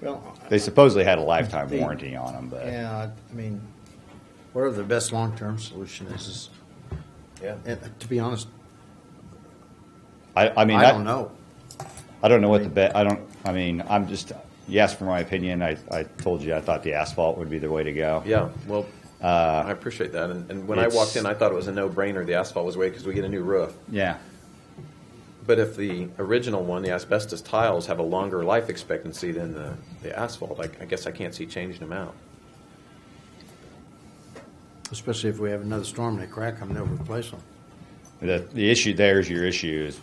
Well, They supposedly had a lifetime warranty on them, but yeah, I mean, whatever the best long-term solution is, is, Yeah. and uh, to be honest, I, I mean, I don't know. I don't know what the bet. I don't. I mean, I'm just. You asked for my opinion. I, I told you I thought the asphalt would be the way to go. Yeah, well, I appreciate that. And, and when I Uh, it's- walked in, I thought it was a no-brainer. The asphalt was way because we get a new roof. Yeah. But if the original one, the asbestos tiles, have a longer life expectancy than the, the asphalt, I, I guess I can't see changing them out. Especially if we have another storm and they crack them, they'll replace them. The the issue there is your issue is,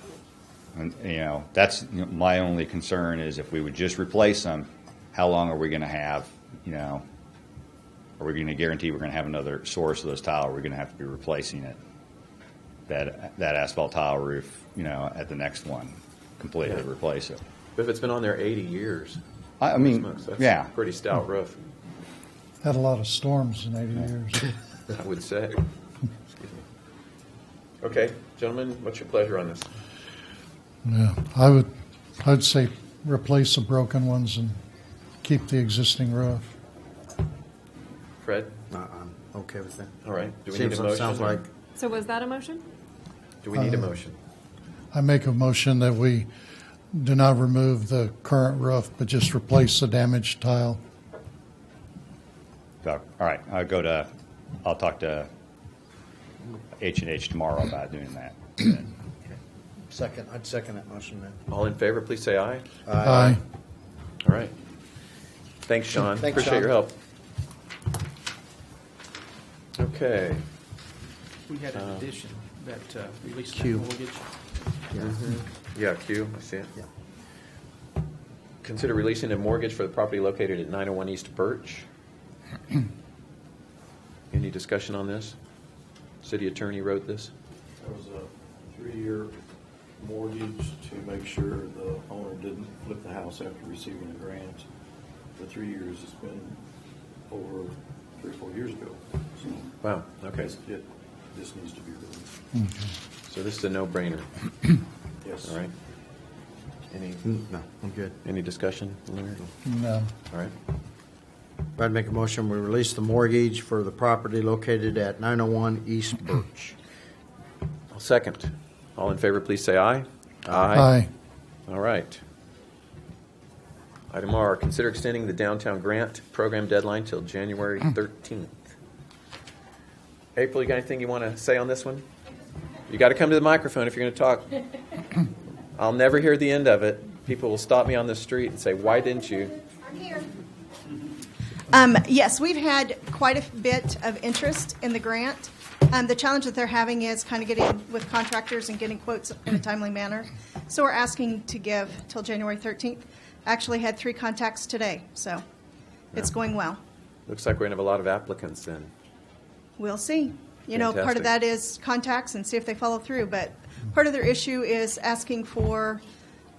and, you know, that's my only concern is if we would just replace them, how long are we going to have? You know, are we going to guarantee we're going to have another source of those tile? Or are we going to have to be replacing it? That that asphalt tile roof, you know, at the next one, completely Yeah. replace it. But if it's been on there 80 years, I, I mean, smokes, that's yeah. a pretty stout roof, Had a lot of storms in 80 years. I would say. Excuse me. Okay, gentlemen, what's your pleasure on this? Yeah, I would, I'd say replace the broken ones and keep the existing roof. Fred? Uh, I'm okay with that. All right. Do we Seems- need a motion? Sounds or- like, So was that a motion? Do we need a Uh, motion? I make a motion that we do not remove the current roof, but just replace the damaged tile. So, All right, I'll go to, I'll talk to H and H tomorrow about doing that. second, I'd second that motion then. All in favor, please say aye. Aye. All right. Thanks, Sean. Thanks, Appreciate Sean. your help. Okay. We had an addition that uh, released that Q. mortgage. Yeah. Yeah, Q, I see it. Yeah. Consider releasing a mortgage for the property located at 901 East Birch. Any discussion on this? City attorney wrote this? There was a three-year mortgage to make sure the owner didn't flip the house after receiving the grant. The three years has been over three, or four years ago. So Wow, okay. It, this needs to be released. So this is a no-brainer, Yes. all right? Any, Mm, No, I'm good. any discussion? Larry? No. All right. I'd make a motion, we release the mortgage for the property located at 901 East Birch. I'll second. All in favor, please say aye. Aye. All right. Item R, consider extending the downtown grant program deadline till January 13th. April, you got anything you want to say on this one? You got to come to the microphone if you're going to talk. I'll never hear the end of it. People will stop me on the street and say, why didn't you? Um, yes, we've had quite a bit of interest in the grant. Um, the challenge that they're having is kind of getting with contractors and getting quotes in a timely manner. So we're asking to give till January 13th. Actually had three contacts today, so it's going well. Looks like we're going to have a lot of applicants then. We'll see. You know, part Fantastic. of that is contacts and see if they follow through, but part of their issue is asking for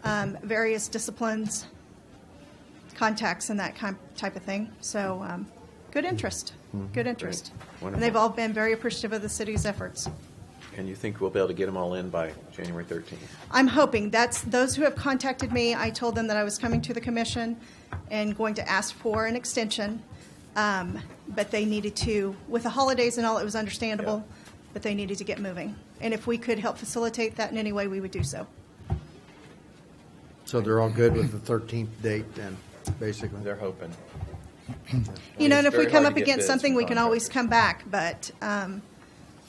um, various disciplines, contacts, and that kind type of thing. So, um, good interest. Good interest. And they've Mm-hmm. Wonderful. all been very appreciative of the city's efforts. And you think we'll be able to get them all in by January 13th? I'm hoping that's those who have contacted me. I told them that I was coming to the commission and going to ask for an extension, um, but they needed to, with the holidays and all, it was understandable, but they needed to get moving. And if we could help facilitate that in any way, we would do so. So they're all good with the 13th date then, basically? They're hoping. You know, it's and if we very come hard up to get against bids something, from we can always contractors. come back, but um,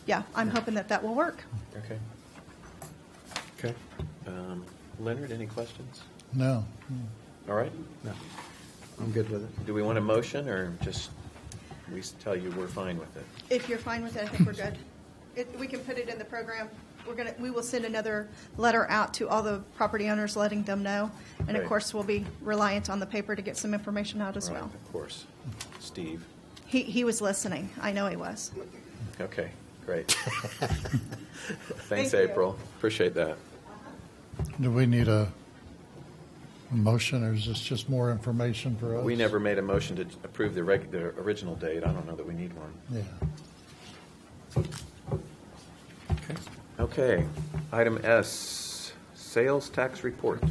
yeah, I'm hoping that that will work. Okay. Okay. Um, Leonard, any questions? No. All right. No, I'm good with it. Do we want a motion or just we s- tell you we're fine with it? If you're fine with it, I think we're good. It, we can put it in the program. We're gonna, we will send another letter out to all the property owners, letting them know. And of Great. course, we'll be reliant on the paper to get some information out as Right, well. Of course. Steve. He, he was listening. I know he was. Okay, great. Thanks, Thank you. April. Appreciate that. Do we need a a motion, or is this just more information for us? We never made a motion to approve the reg, the original date. I don't know that we need one. Yeah. Okay. Item S, sales tax report.